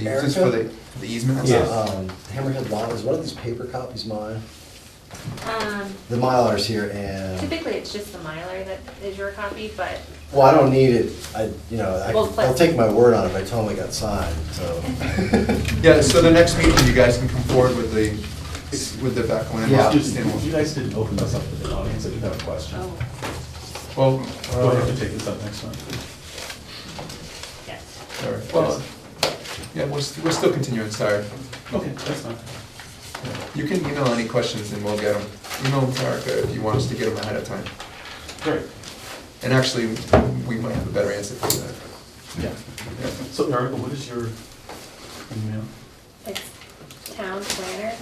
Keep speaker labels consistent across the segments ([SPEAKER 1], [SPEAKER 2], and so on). [SPEAKER 1] you use this for the the easement and
[SPEAKER 2] Yeah.
[SPEAKER 1] stuff?
[SPEAKER 2] Um, Hammerhead Law, is one of these paper copies mine?
[SPEAKER 3] Um,
[SPEAKER 2] The Mylar's here and,
[SPEAKER 3] typically, it's just the Mylar that is your copy, but
[SPEAKER 2] well, I don't need it, I, you know, I,
[SPEAKER 3] Well,
[SPEAKER 2] I'll take my word on it, but I totally got signed, so.
[SPEAKER 1] Yeah, so the next meeting, you guys can come forward with the, with the backland.
[SPEAKER 2] Yeah.
[SPEAKER 4] You guys didn't open this up to the audience, I did have a question.
[SPEAKER 3] oh,
[SPEAKER 1] Well,
[SPEAKER 4] Do I have to
[SPEAKER 1] uh,
[SPEAKER 4] take this up next time?
[SPEAKER 3] yes.
[SPEAKER 1] sorry. Well, yeah, we're, st- we're still continuing, sorry.
[SPEAKER 4] Okay, that's fine.
[SPEAKER 1] You can email any questions and we'll get them. Email Erica if you want us to get them ahead of time.
[SPEAKER 4] Great.
[SPEAKER 1] And actually, we might have a better answer for that.
[SPEAKER 4] Yeah.
[SPEAKER 1] Yeah.
[SPEAKER 4] So Erica, what is your email?
[SPEAKER 3] It's town planner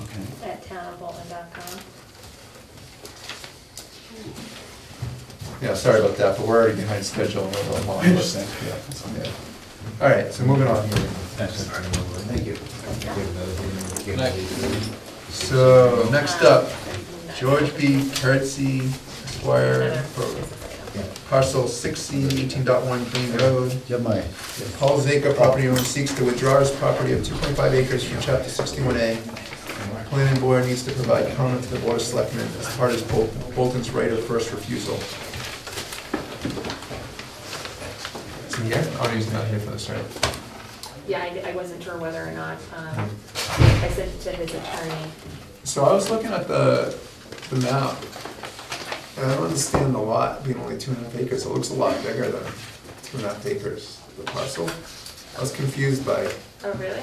[SPEAKER 4] Okay.
[SPEAKER 3] at townofbolton.com.
[SPEAKER 1] Yeah, sorry about that, but we're already behind schedule. and we're a little
[SPEAKER 4] I
[SPEAKER 1] long.
[SPEAKER 4] understand, yeah, that's fine.
[SPEAKER 1] Yeah. All right, so moving on here.
[SPEAKER 2] Thank you.
[SPEAKER 1] So,
[SPEAKER 3] Um,
[SPEAKER 1] next up, George B. Keretzy Esquire,
[SPEAKER 3] Another
[SPEAKER 1] for
[SPEAKER 3] business item.
[SPEAKER 2] Yeah.
[SPEAKER 1] parcel 16, 18.1 Green Road.
[SPEAKER 2] Do you have my?
[SPEAKER 1] Paul Zaka, property owner, seeks to withdraw his property of 2.5 acres from chapter 61A. Planning board needs to provide comment to the board of selectmen as part of Bol- Bolton's right of first refusal. Is he here? Oh, he's not here for this, right?
[SPEAKER 3] Yeah, I, I wasn't sure whether or not, um, I sent it to his attorney.
[SPEAKER 1] So I was looking at the, the map, and I don't understand the lot being only two and a half acres, it looks a lot bigger than two and a half acres, the parcel. I was confused by,
[SPEAKER 3] Oh, really?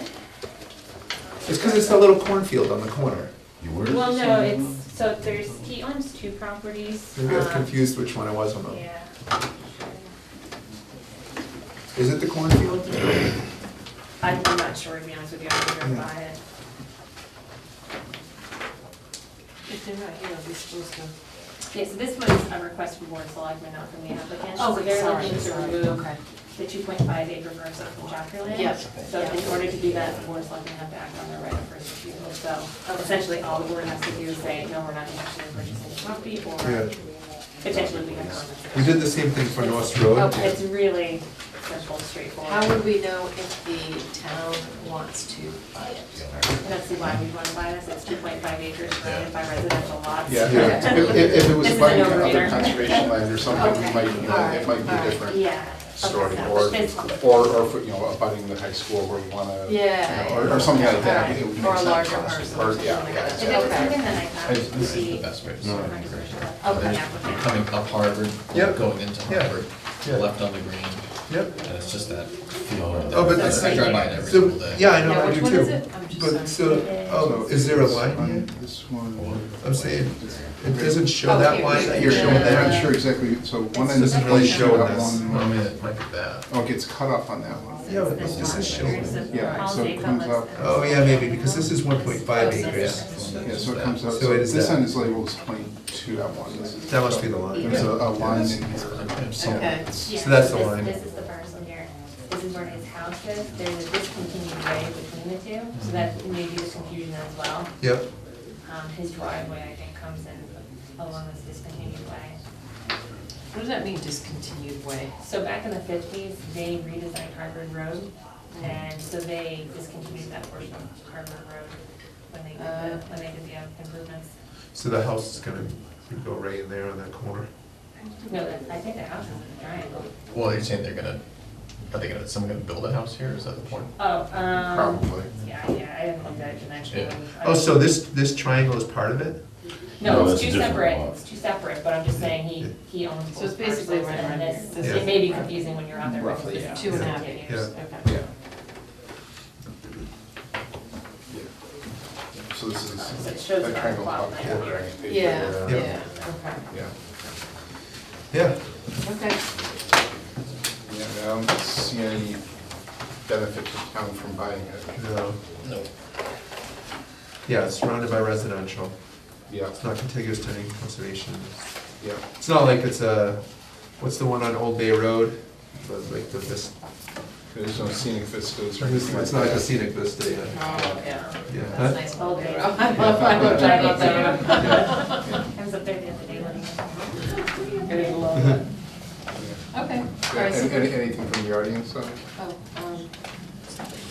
[SPEAKER 1] it's because it's the little cornfield on the corner,
[SPEAKER 3] Well, no, it's, so there's, he owns two properties.
[SPEAKER 1] maybe I was
[SPEAKER 3] um,
[SPEAKER 5] Uh-huh.
[SPEAKER 1] confused which one I was on. the-
[SPEAKER 3] Yeah.
[SPEAKER 1] Is it the cornfield?
[SPEAKER 3] I'm not sure, to be honest with you, I've never
[SPEAKER 1] Yeah.
[SPEAKER 3] bought it.
[SPEAKER 5] If they're not here, they're supposed to.
[SPEAKER 3] Yeah, so this was a request from Board of Selectmen, not from the applicant.
[SPEAKER 5] Oh,
[SPEAKER 3] So they're looking to remove the two point five acre parcel from chapter land.
[SPEAKER 5] Yep.
[SPEAKER 3] So in order to do that, the Board of Selectmen have to act on their right of first refusal. So essentially, all the board has to do is say, no, we're not interested in purchasing the property, or
[SPEAKER 1] Yeah.
[SPEAKER 3] potentially we can comment.
[SPEAKER 1] We did the same thing for North Road.
[SPEAKER 3] Oh, It's really simple, straightforward.
[SPEAKER 5] How would we know if the town wants to buy it?
[SPEAKER 3] That's why we want to buy this, it's two point five acres surrounded by residential lots.
[SPEAKER 6] Yeah,
[SPEAKER 1] Yeah.
[SPEAKER 6] if, if it was
[SPEAKER 3] This is a
[SPEAKER 6] buying other
[SPEAKER 3] no-brainer.
[SPEAKER 6] conservation land or something, we
[SPEAKER 5] Okay,
[SPEAKER 6] might,
[SPEAKER 5] alright,
[SPEAKER 6] it might be
[SPEAKER 5] alright.
[SPEAKER 6] a different
[SPEAKER 3] Yeah.
[SPEAKER 6] story.
[SPEAKER 3] Okay, so
[SPEAKER 6] Or,
[SPEAKER 3] it's-
[SPEAKER 6] or, or, for, you know, abutting the high school where you wanna, you
[SPEAKER 5] Yeah.
[SPEAKER 6] know, or, or something like that.
[SPEAKER 5] Alright.
[SPEAKER 6] it would make
[SPEAKER 5] Or a
[SPEAKER 6] sense
[SPEAKER 5] larger
[SPEAKER 6] for us to-
[SPEAKER 5] parcel.
[SPEAKER 6] Or,
[SPEAKER 5] something
[SPEAKER 6] yeah,
[SPEAKER 5] like
[SPEAKER 6] yeah,
[SPEAKER 3] If
[SPEAKER 5] that.
[SPEAKER 3] it was
[SPEAKER 5] Okay.
[SPEAKER 3] something that I thought
[SPEAKER 7] This
[SPEAKER 3] would
[SPEAKER 7] this is
[SPEAKER 3] be.
[SPEAKER 7] the best way to
[SPEAKER 3] Oh,
[SPEAKER 7] start.
[SPEAKER 3] the
[SPEAKER 7] There's-
[SPEAKER 3] applicant.
[SPEAKER 7] Coming up Harvard,
[SPEAKER 1] Yep.
[SPEAKER 7] going into
[SPEAKER 1] Yeah.
[SPEAKER 7] Harvard,
[SPEAKER 1] Yeah.
[SPEAKER 7] left on the green,
[SPEAKER 1] Yep.
[SPEAKER 7] and it's just that feel. that-
[SPEAKER 1] Oh, but
[SPEAKER 3] that's-
[SPEAKER 7] I drive by it every
[SPEAKER 1] So,
[SPEAKER 7] single day.
[SPEAKER 1] yeah, I know,
[SPEAKER 5] Now,
[SPEAKER 1] I
[SPEAKER 5] which
[SPEAKER 1] do
[SPEAKER 5] one is
[SPEAKER 1] too.
[SPEAKER 5] it? I'm just
[SPEAKER 1] But
[SPEAKER 5] sorry.
[SPEAKER 1] so, oh, no, is there a line
[SPEAKER 6] On
[SPEAKER 1] here?
[SPEAKER 6] This one.
[SPEAKER 1] I'm saying, it doesn't show
[SPEAKER 5] Oh,
[SPEAKER 1] that
[SPEAKER 5] here.
[SPEAKER 1] line that you're
[SPEAKER 6] You're
[SPEAKER 1] showing
[SPEAKER 6] showing,
[SPEAKER 1] there.
[SPEAKER 6] I'm not sure exactly, so one end.
[SPEAKER 1] Doesn't really
[SPEAKER 6] show
[SPEAKER 1] show
[SPEAKER 6] that
[SPEAKER 1] this.
[SPEAKER 6] one-
[SPEAKER 7] Well, I mean, it might be that.
[SPEAKER 6] Oh, it gets cut off on that one.
[SPEAKER 1] Yeah, but this is showing.
[SPEAKER 6] Yeah, so it comes up-
[SPEAKER 1] Oh, yeah, maybe, because this is 1.5 acres.
[SPEAKER 6] Yeah, so it comes out,
[SPEAKER 1] So
[SPEAKER 6] so
[SPEAKER 1] it is
[SPEAKER 6] this
[SPEAKER 1] that.
[SPEAKER 6] end is labeled as twenty-two at one. This is-
[SPEAKER 1] That must be the line.
[SPEAKER 6] There's a, a line in
[SPEAKER 7] Okay.
[SPEAKER 6] here.
[SPEAKER 7] So-
[SPEAKER 5] Okay.
[SPEAKER 3] Yeah,
[SPEAKER 1] So that's the
[SPEAKER 3] this-
[SPEAKER 1] line.
[SPEAKER 3] This is the parcel here. This is where his house is. There's a discontinued way between the two, so that may be the confusion as well.
[SPEAKER 1] Yep.
[SPEAKER 3] Um, his driveway, I think, comes in along this discontinued way.
[SPEAKER 5] What does that mean, discontinued way?
[SPEAKER 3] So back in the fifties, they redesigned Harvard Road, and so they discontinued that portion of Harvard Road when they did the, when they did the improvements.
[SPEAKER 1] So the house is gonna go right in there on that corner.
[SPEAKER 3] No, that- I think the house is in a triangle.
[SPEAKER 7] Well, you're saying they're gonna, are they gonna, is someone gonna build a house here, is that the point?
[SPEAKER 3] Oh, um.
[SPEAKER 6] Probably.
[SPEAKER 3] Yeah, yeah, I haven't looked at it connection.
[SPEAKER 7] Yeah.
[SPEAKER 1] Oh, so this, this triangle is part of it?
[SPEAKER 3] No, it's two separate, it's two separate, but I'm just saying he, he owns both
[SPEAKER 5] So it's basically
[SPEAKER 3] parcels,
[SPEAKER 5] right
[SPEAKER 3] and
[SPEAKER 5] around here.
[SPEAKER 3] this-
[SPEAKER 5] This
[SPEAKER 1] is-
[SPEAKER 3] It may be confusing when you're out there.
[SPEAKER 6] Roughly,
[SPEAKER 3] because
[SPEAKER 6] yeah.
[SPEAKER 3] it's
[SPEAKER 5] Two and a half
[SPEAKER 3] Yeah.
[SPEAKER 5] acres,
[SPEAKER 1] Yeah.
[SPEAKER 5] okay.
[SPEAKER 6] So this is.
[SPEAKER 3] So it shows
[SPEAKER 6] that
[SPEAKER 3] it on the
[SPEAKER 6] triangle
[SPEAKER 3] plot
[SPEAKER 6] top
[SPEAKER 3] plan
[SPEAKER 6] corner,
[SPEAKER 3] here.
[SPEAKER 6] right? uh,
[SPEAKER 5] Yeah,
[SPEAKER 1] Yeah.
[SPEAKER 5] yeah,
[SPEAKER 6] Yeah.
[SPEAKER 1] Yeah.
[SPEAKER 5] okay, okay.
[SPEAKER 6] Yeah, I don't see any benefit to town from buying it.
[SPEAKER 1] No.
[SPEAKER 7] No.
[SPEAKER 1] Yeah, it's surrounded by residential.
[SPEAKER 6] Yeah,
[SPEAKER 1] It's not contiguous to any conservation.
[SPEAKER 6] yeah.
[SPEAKER 1] It's not like it's a, what's the one on Old Bay Road? But Like the, this,
[SPEAKER 6] There's no scenic vistas or
[SPEAKER 1] it's
[SPEAKER 6] anything like
[SPEAKER 1] it's
[SPEAKER 6] that.
[SPEAKER 1] not like a scenic vista, yeah.
[SPEAKER 5] Oh, yeah.
[SPEAKER 1] Yeah.
[SPEAKER 5] That's nice, well, I love, I love that, I love that.
[SPEAKER 3] I was up there the other day looking.
[SPEAKER 5] I love that. Okay, all
[SPEAKER 6] Yeah,
[SPEAKER 5] right, so
[SPEAKER 6] any- any-
[SPEAKER 5] good.
[SPEAKER 6] Anything from the audience, though?
[SPEAKER 5] Oh, oh,